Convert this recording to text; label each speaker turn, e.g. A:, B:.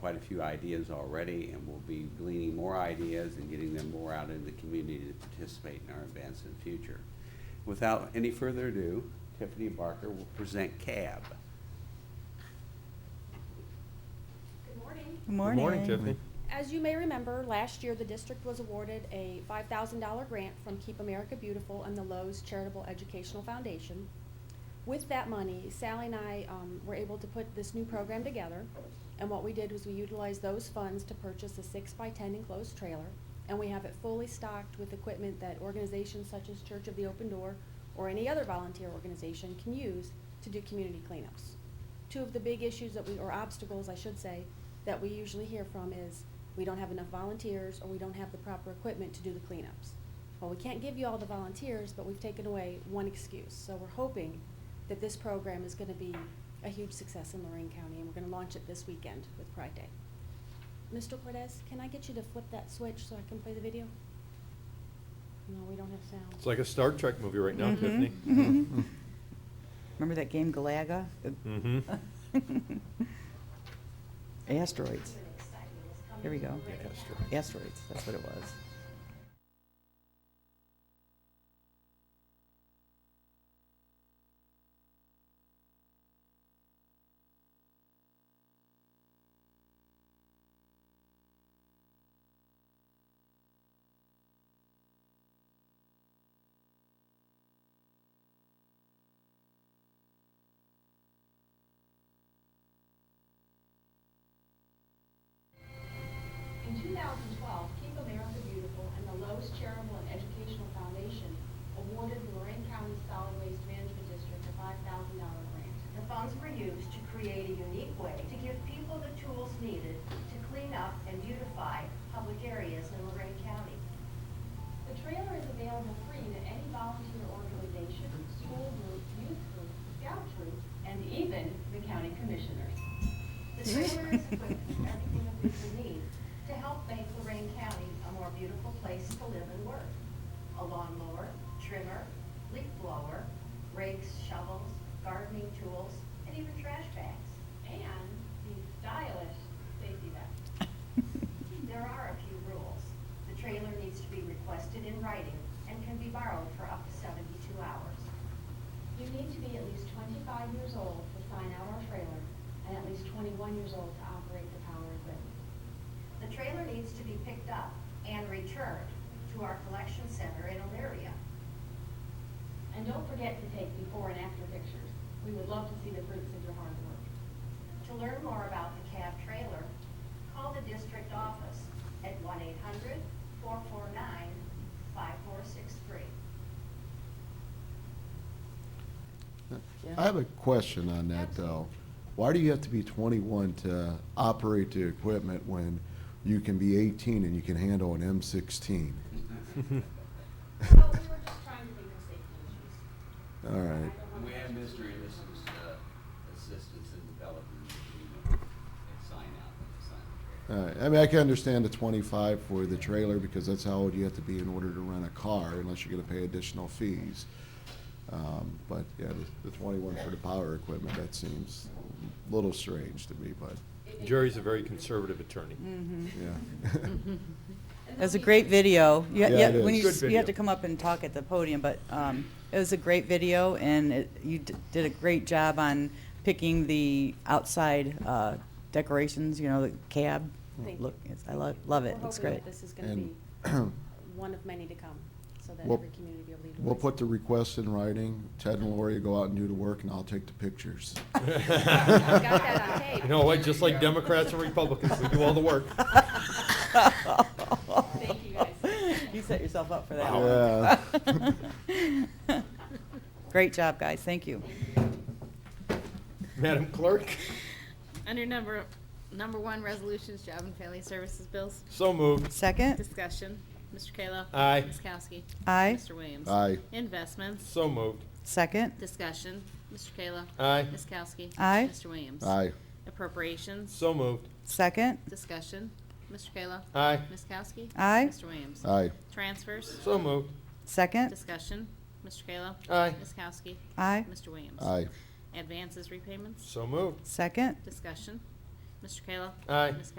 A: quite a few ideas already, and we'll be gleaning more ideas and getting them more out in the community to participate in our events in the future. Without any further ado, Tiffany Barker will present CAB.
B: Good morning.
C: Good
D: Good
C: morning.
D: morning, Tiffany.
B: As you may remember, last year the district was awarded a $5,000 grant from Keep America Beautiful and the Lowe's Charitable Educational Foundation. With that money, Sally and I um, were able to put this new program together, and what we did was we utilized those funds to purchase a six-by-ten enclosed trailer, and we have it fully stocked with equipment that organizations such as Church of the Open Door or any other volunteer organization can use to do community cleanups. two of the big issues that we, or obstacles, I should say, that we usually hear from is we don't have enough volunteers or we don't have the proper equipment to do the cleanups. Well, we can't give you all the volunteers, but we've taken away one excuse. So we're hoping that this program is gonna be a huge success in Lorraine County and we're gonna launch it this weekend with Pride Day. Mr. Cortez, can I get you to flip that switch so I can play the video? No, we don't have sound.
D: It's like a Star Trek movie right now,
C: Mhm.
D: Tiffany.
C: Mhm.
D: mm-hmm.
C: Remember that game Galaga?
D: Mhm.
C: Mm. Asteroids. Here we go.
D: Yeah, Astro.
C: Asteroids, that's what it was.
B: In 2012, Keep America Beautiful and the Lowe's Charitable and Educational Foundation awarded the Lorraine County Solid Waste Management District a $5,000 grant.
E: The funds were used to create a unique way to give people the tools needed to clean up and beautify public areas in Lorraine County.
B: The trailer is available free to any volunteer organization, school group, youth group, scout troop,
E: and even the county commissioners. The trailer is equipped with everything that we will need to help make Lorraine County a more beautiful place to live and work. A lawnmower, trimmer, leaf blower, rakes, shovels, gardening tools, and even trash bags.
B: and the stylish safety vest.
E: There are a few rules. The trailer needs to be requested in writing and can be borrowed for up to 72 hours.
B: You need to be at least 25 years old to sign out our trailer and at least 21 years old to operate the power equipment.
E: The trailer needs to be picked up and returned to our collection center in Elyria.
B: And don't forget to take before and after pictures. We would love to see the fruits of your hard work.
E: To learn more about the cab trailer, call the district office at 1-800-449-5463.
F: I have a question on that, though. Why do you have to be 21 to operate the equipment when you can be 18 and you can handle an M16?
G: Well, we were just trying to think of safety issues.
F: All right.
A: We have Mr. Innocent's assistance in developing the agreement and sign out and sign the
F: All right. I mean, I can understand the 25 for the trailer because that's how old you have to be in order to rent a car unless you're going to pay additional fees. Um, But, yeah, the the 21 for the power equipment, that seems a little strange to me, but,
D: Jerry's a very conservative attorney.
C: Mm-hmm.
F: yeah.
C: It was a great video. You ha-
F: Yeah,
C: yeah,
F: it
C: when
F: is.
C: you
D: Good
C: s- You have
D: video.
C: to come up and talk at the podium, but um, it was a great video, and it- you d- did a great job on picking the outside uh, decorations, you know, the cab.
B: Thank
C: Look,
B: you.
C: it's- I lo- love it. It's
B: We're
C: great.
B: hoping that this is gonna be
F: And
B: one of many to come, so that
F: We'll-
B: every community will be.
F: We'll put the request in writing. Ted and Lori go out and do the work, and I'll take the pictures.
B: got that on tape.
D: You know what, just like Democrats and Republicans, we do all the work.
C: Thank
B: you, guys.
C: You set yourself up for that
F: Wow.
C: one. Great job, guys. Thank you.
D: Madam Clerk,
G: Under number, number one, resolutions, job and family services bills.
D: so moved.
C: Second?
G: Discussion. Mr. Kayla.
D: Aye.
G: Ms. Kowski.
C: Aye.
G: Mr. Williams.
F: Aye.
G: Investments.
D: So moved.
C: Second?
G: Discussion. Mr. Kayla.
D: Aye.
G: Ms. Kowski.
C: Aye.
G: Mr. Williams.
F: Aye.
G: Appropriations.
D: So moved.
C: Second?
G: Discussion. Mr. Kayla.
D: Aye.
G: Ms. Kowski.
C: Aye.
G: Mr. Williams.
F: Aye.
G: Transfers.
D: So moved.
C: Second?
G: Discussion. Mr. Kayla.
D: Aye.
G: Ms. Kowski.
C: Aye.
G: Mr. Williams.
F: Aye.
G: Advances repayments.
D: So moved.
C: Second?
G: Discussion. Mr. Kayla.
D: Aye.
G: Ms.